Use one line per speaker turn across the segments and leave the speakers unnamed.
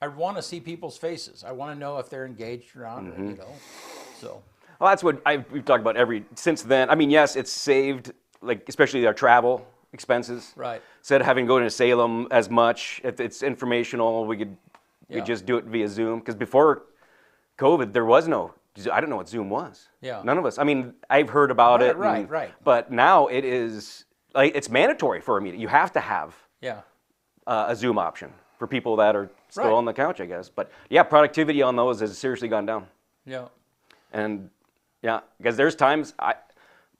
I want to see people's faces. I want to know if they're engaged or not.
Mm-hmm.
You know, so
Well, that's what I, we've talked about every since then. I mean, yes, it's saved, like especially our travel expenses.
Right.
Instead of having to go to Salem as much, if it's informational, we could
Yeah.
we could just do it via Zoom. Because before COVID, there was no. I don't know what Zoom was.
Yeah.
None of us. I mean, I've heard about
Right,
it.
right,
and-
right.
But now it is like it's mandatory for a meeting. You have to have
yeah,
uh, a Zoom option for people that are still
Right.
on the couch, I guess. But yeah, productivity on those has seriously gone down.
yeah,
And yeah, because there's times I,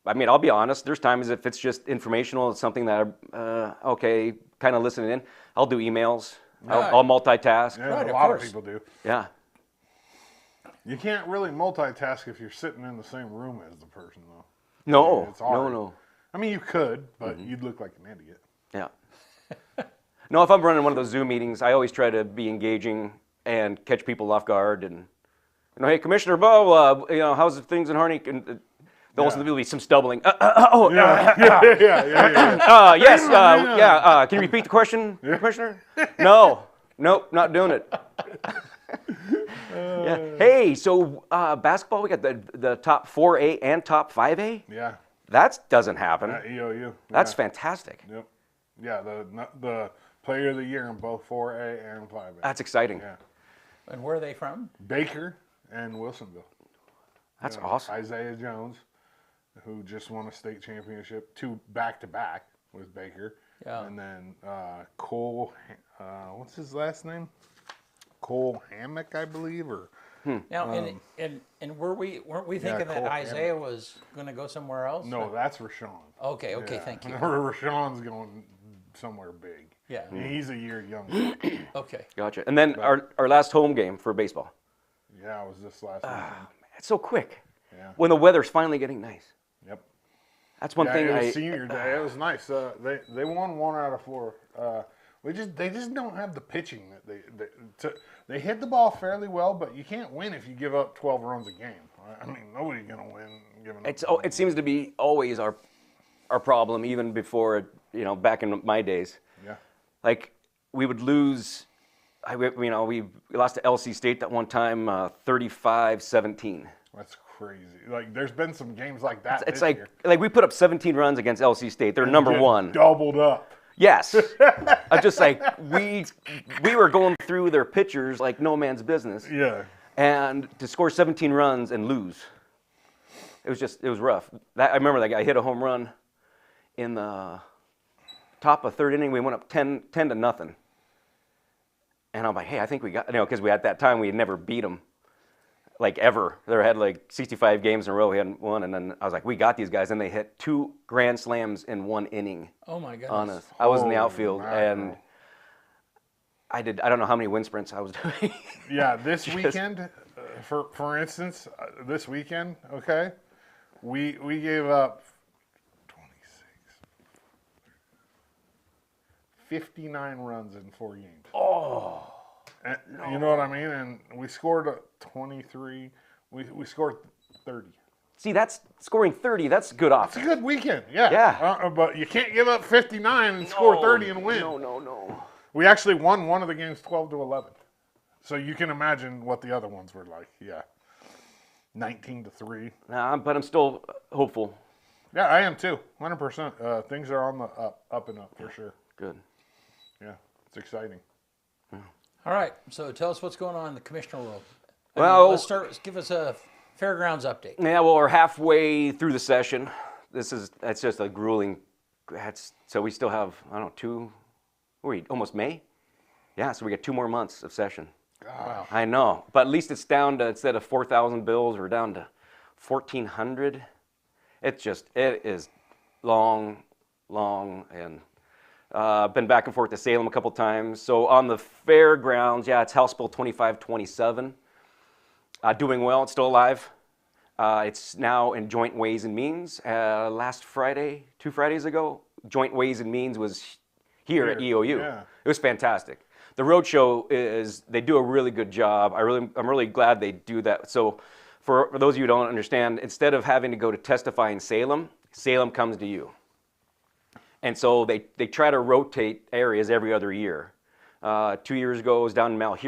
I mean, I'll be honest. There's times if it's just informational, it's something that I, uh, okay, kind of listening in. I'll do emails.
Right.
I'll, I'll multitask.
Yeah,
Yeah.
Right,
a
of
lot
course.
of people do. You can't really multitask if you're sitting in the same room as the person, though.
Oh, No.
It's
No.
hard.
No. Mm-hmm.
I mean, you could, but you'd look like an idiot.
Yeah. no, if I'm running one of those Zoom meetings, I always try to be engaging and catch people off guard. And you know, hey, Commissioner Bo, uh, you know, how's things in Harney? And uh, there'll also
Yeah.
be some stumbling. Uh, uh, uh, oh, uh,
Yeah, yeah, yeah, yeah. yeah.
uh, yes, uh, yeah. Uh, can you repeat the question, Commissioner? No, nope, not doing it.
Uh.
yeah. Hey, so uh, basketball, we got the the top four A and top five A.
yeah.
That doesn't happen.
At EOU.
That's
yeah.
fantastic.
Yep. Yeah, the not- the player of the year in both 4A and 5A.
That's exciting.
yeah.
and where are they from?
Baker and Wilsonville.
That's
Uh,
awesome.
Isaiah Jones, who just won a state championship, two back to back with Baker.
Yeah.
And then uh, Cole, Ha- uh, what's his last name? Cole Hammock, I believe, or
Now, and, and and were we weren't we
Um, Yeah,
thinking that
Cole
Isaiah was going to go somewhere else?
no, that's Rashawn.
Okay. Okay. Thank you.
Oh, Rashawn's going somewhere big.
Yeah.
He's a year younger.
Okay.
Gotcha. And then our, our last home game for baseball.
yeah, it was this last
Ah.
weekend.
It's so quick.
Yeah.
When the weather's finally getting nice.
Yep.
That's one
Yeah,
thing
it was
I.
senior day. It was nice. Uh, they they won one out of four. Uh, we just they just don't have the pitching that they they, to, they hit the ball fairly well, but you can't win if you give up twelve runs a game. I- I mean, nobody's gonna win giving up.
It's, oh, it seems to be always our, our problem, even before, it, you know, back in my days.
yeah,
Like, we would lose, I, you know, we lost to LC State that one time, uh, 35 17.
that's crazy. Like there's been some games like that.
It's
this
like,
year.
like we put up 17 runs against LC State. They're number
Get
one.
doubled up.
Yes. I'm just like, we, we were going through their pitchers like no man's business.
Yeah,
and to score 17 runs and lose. It was just, it was rough. That, I remember that guy hit a home run in the top of third inning. We went up 10, 10 to nothing. And I'm like, hey, I think we got, you know, because we at that time we had never beat them, like ever. They had like 65 games in a row. We hadn't won, and then I was like, we got these guys, and they hit two grand slams in one inning
Oh my goodness.
on us. I was in the
Holy
outfield,
mackerel.
and I did. I don't know how many wind sprints I was doing.
yeah. This weekend, uh, for for instance, uh, this weekend, okay, we we gave up 26, 59 runs in four games. Oh, you know what I mean? And we scored uh, 23. We we scored 30.
See, that's scoring 30. That's good
It's
offense.
a good weekend, yeah.
Yeah.
Uh, uh, but you can't give up 59 and score
No,
30 and win.
No, no, no.
We actually won one of the games 12 to 11. So you can imagine what the other ones were like. Yeah. 19 to 3.
Nah, but I'm still hopeful.
Yeah, I am too. 100%. Uh, things are on the up, up and up for sure.
Good.
Yeah. It's exciting.
All right. So tell us what's going on in the commissioner world. I mean,
Well,
let's start. Give us a fairgrounds update.
yeah. Well, we're halfway through the session. This is that's just a grueling. That's so we still have I don't know two. what Are we almost May? Yeah. So we got two more months of session.
Wow.
I know, but at least it's down to instead of 4,000 bills, we're down to 1,400. It's just it is long, long, and uh, been back and forth to Salem a couple times. So on the fairgrounds, yeah, it's House Bill 2527. Uh, doing well, it's still alive. Uh, it's now in Joint Ways and Means. Uh, last Friday, two Fridays ago, Joint Ways and Means was here, at
Here,
EOU.
yeah.
It was fantastic. The roadshow is they do a really good job. I really I'm really glad they do that. So for, for those of you who don't understand, instead of having to go to testify in Salem, Salem comes to you. And so they, they try to rotate areas every other year. Uh, two years ago, it was down in Malheur.